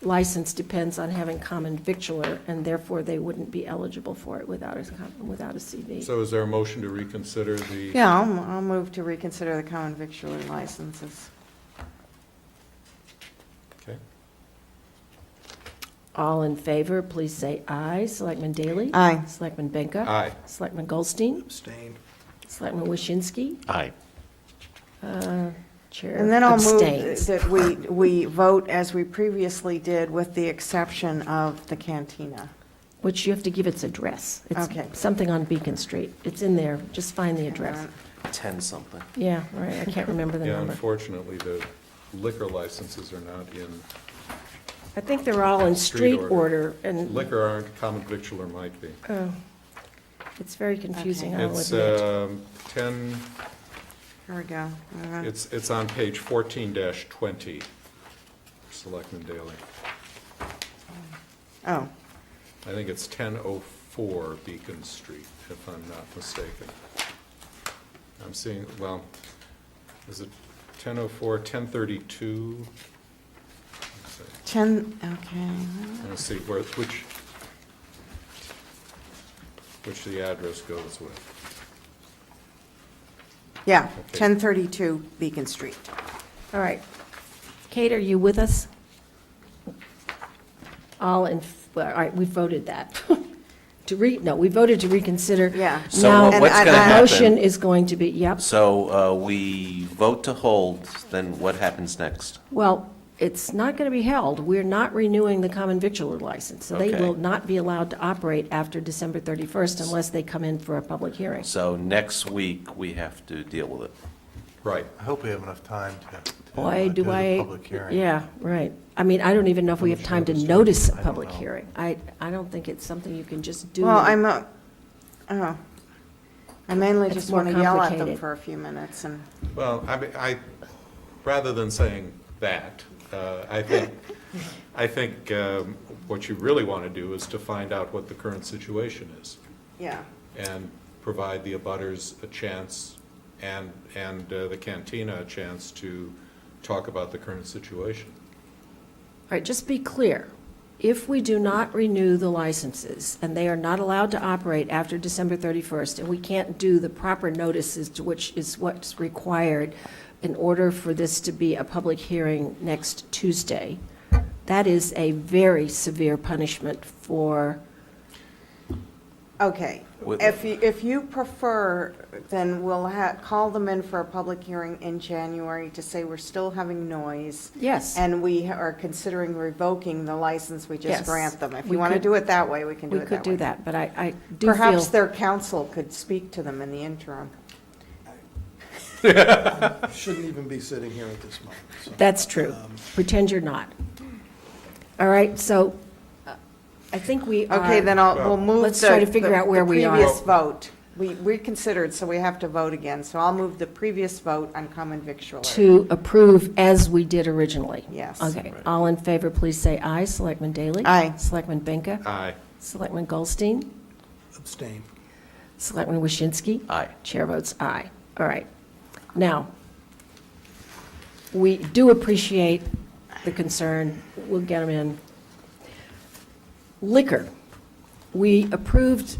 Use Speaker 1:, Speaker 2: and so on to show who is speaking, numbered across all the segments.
Speaker 1: license depends on having common victular, and therefore they wouldn't be eligible for it without a, com- without a CV.
Speaker 2: So is there a motion to reconsider the?
Speaker 3: Yeah, I'll, I'll move to reconsider the common victular licenses.
Speaker 2: Okay.
Speaker 1: All in favor, please say aye. Selectman Daley?
Speaker 3: Aye.
Speaker 1: Selectman Benka?
Speaker 2: Aye.
Speaker 1: Selectman Goldstein?
Speaker 4: Abstain.
Speaker 1: Selectman Waschinsky?
Speaker 5: Aye.
Speaker 1: Chair
Speaker 3: And then I'll move
Speaker 1: abstains.
Speaker 3: that we, we vote as we previously did with the exception of the cantina.
Speaker 1: Which you have to give its address. It's
Speaker 3: Okay.
Speaker 1: Something on Beacon Street. It's in there. Just find the address.
Speaker 5: 10-something.
Speaker 1: Yeah, right. I can't remember the
Speaker 2: Yeah,
Speaker 1: number.
Speaker 2: unfortunately, the liquor licenses are not in,
Speaker 1: I think they're all in
Speaker 2: Street
Speaker 1: street order,
Speaker 2: order.
Speaker 1: and
Speaker 2: liquor aren't, common victular might be.
Speaker 1: Oh. it's very confusing, I'll
Speaker 2: It's
Speaker 1: admit.
Speaker 2: um, 10,
Speaker 3: Here we go. Uh,
Speaker 2: it's, it's on page 14-20, Selectman Daley.
Speaker 3: Oh,
Speaker 2: I think it's 1004 Beacon Street, if I'm not mistaken. I'm seeing, well, is it 1004, 1032? Let's see.
Speaker 3: 10, okay.
Speaker 2: Let's see where, which, which the address goes with.
Speaker 3: Yeah,
Speaker 2: Okay.
Speaker 3: 1032 Beacon Street.
Speaker 5: uh,
Speaker 1: All right. Kate, are you with us? All in, f- well, all right, we voted that. To re, no, we voted to reconsider.
Speaker 3: Yeah.
Speaker 5: So
Speaker 1: Now-
Speaker 5: what- what's
Speaker 3: And
Speaker 5: going to
Speaker 3: I-
Speaker 1: The motion
Speaker 5: happen?
Speaker 1: is going to be, yep,
Speaker 5: So uh, we vote to hold, then what happens next?
Speaker 1: well, it's not going to be held. We're not renewing the common victular license, so they
Speaker 5: Okay.
Speaker 1: will not be allowed to operate after December 31st unless they come in for a public hearing.
Speaker 5: So next week, we have to deal with it.
Speaker 2: Right.
Speaker 4: I hope we have enough time to- to.
Speaker 1: Why
Speaker 4: uh,
Speaker 1: do
Speaker 4: the
Speaker 1: I?
Speaker 4: Public hearing.
Speaker 1: Yeah, right. I mean, I don't even know if we
Speaker 4: How
Speaker 1: have
Speaker 4: much
Speaker 1: time to
Speaker 4: notice do we-
Speaker 1: notice a
Speaker 4: I don't
Speaker 1: public
Speaker 4: know.
Speaker 1: hearing. I, I don't think it's something you can just do.
Speaker 3: Well, I'm, uh, oh, I mainly
Speaker 1: It's
Speaker 3: just
Speaker 1: more
Speaker 3: want to yell at them
Speaker 1: complicated.
Speaker 3: for a few minutes and,
Speaker 2: Well, I mean, I, rather than saying that, uh, I think, I think um, what you really want to do is to find out what the current situation is
Speaker 3: yeah.
Speaker 2: and provide the abutters a chance and, and uh, the cantina a chance to talk about the current situation.
Speaker 1: All right, just be clear. If we do not renew the licenses, and they are not allowed to operate after December 31st, and we can't do the proper notices to which is what's required in order for this to be a public hearing next Tuesday, that is a very severe punishment for,
Speaker 3: Okay,
Speaker 5: With-
Speaker 3: if you, if you prefer, then we'll ha, call them in for a public hearing in January to say we're still having noise
Speaker 1: yes.
Speaker 3: and we are considering revoking the license we
Speaker 1: Yes.
Speaker 3: just grant them. If
Speaker 1: We
Speaker 3: you want to
Speaker 1: could-
Speaker 3: do it that way, we can do
Speaker 1: We
Speaker 3: it that way.
Speaker 1: could do that, but I, I do feel.
Speaker 3: Perhaps their counsel could speak to them in the interim.
Speaker 4: Shouldn't even be sitting here at this moment, so.
Speaker 1: That's true. Pretend you're not. All right, so uh, I think we are.
Speaker 3: Okay, then I'll,
Speaker 2: Well,
Speaker 3: we'll move.
Speaker 1: let's try to
Speaker 3: the-
Speaker 1: figure
Speaker 3: the-
Speaker 1: out where we are.
Speaker 3: The previous vote. We reconsidered, so we have to vote again. So I'll move the previous vote on common victualler.
Speaker 1: To approve as we did originally.
Speaker 3: Yes.
Speaker 1: Okay, all in favor, please say aye. Selectman Daley?
Speaker 3: Aye.
Speaker 1: Selectman Benka?
Speaker 2: Aye.
Speaker 1: Selectman Goldstein?
Speaker 4: Abstain.
Speaker 1: Selectman Waschinsky?
Speaker 5: Aye.
Speaker 1: Chair votes aye. All right. Now, we do appreciate the concern. We'll get them in. Liquor. We approved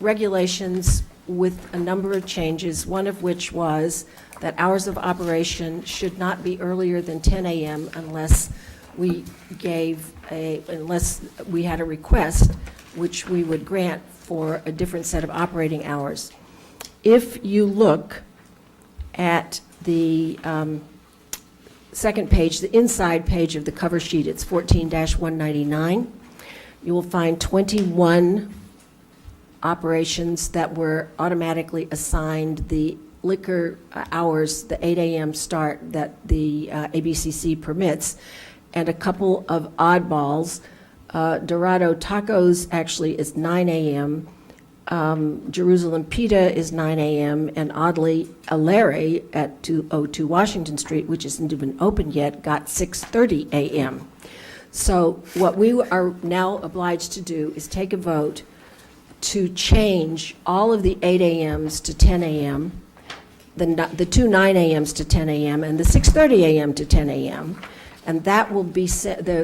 Speaker 1: regulations with a number of changes, one of which was that hours of operation should not be earlier than 10 a.m. unless we gave a, unless we had a request, which we would grant for a different set of operating hours. If you look at the um, second page, the inside page of the cover sheet, it's 14-199, you will find 21 operations that were automatically assigned the liquor uh, hours, the 8 AM start that the uh, ABCC permits, and a couple of oddballs. Uh, Dorado Tacos actually is 9 AM, um, Jerusalem Pita is 9 AM, and oddly, Alere at 202 Washington Street, which isn't even open yet, got 6:30 AM. So what we are now obliged to do is take a vote to change all of the 8 AMs to 10 AM, the, ni- the two 9 AMs to 10 AM, and the 6:30 AM to 10 AM. And that will be, se- the,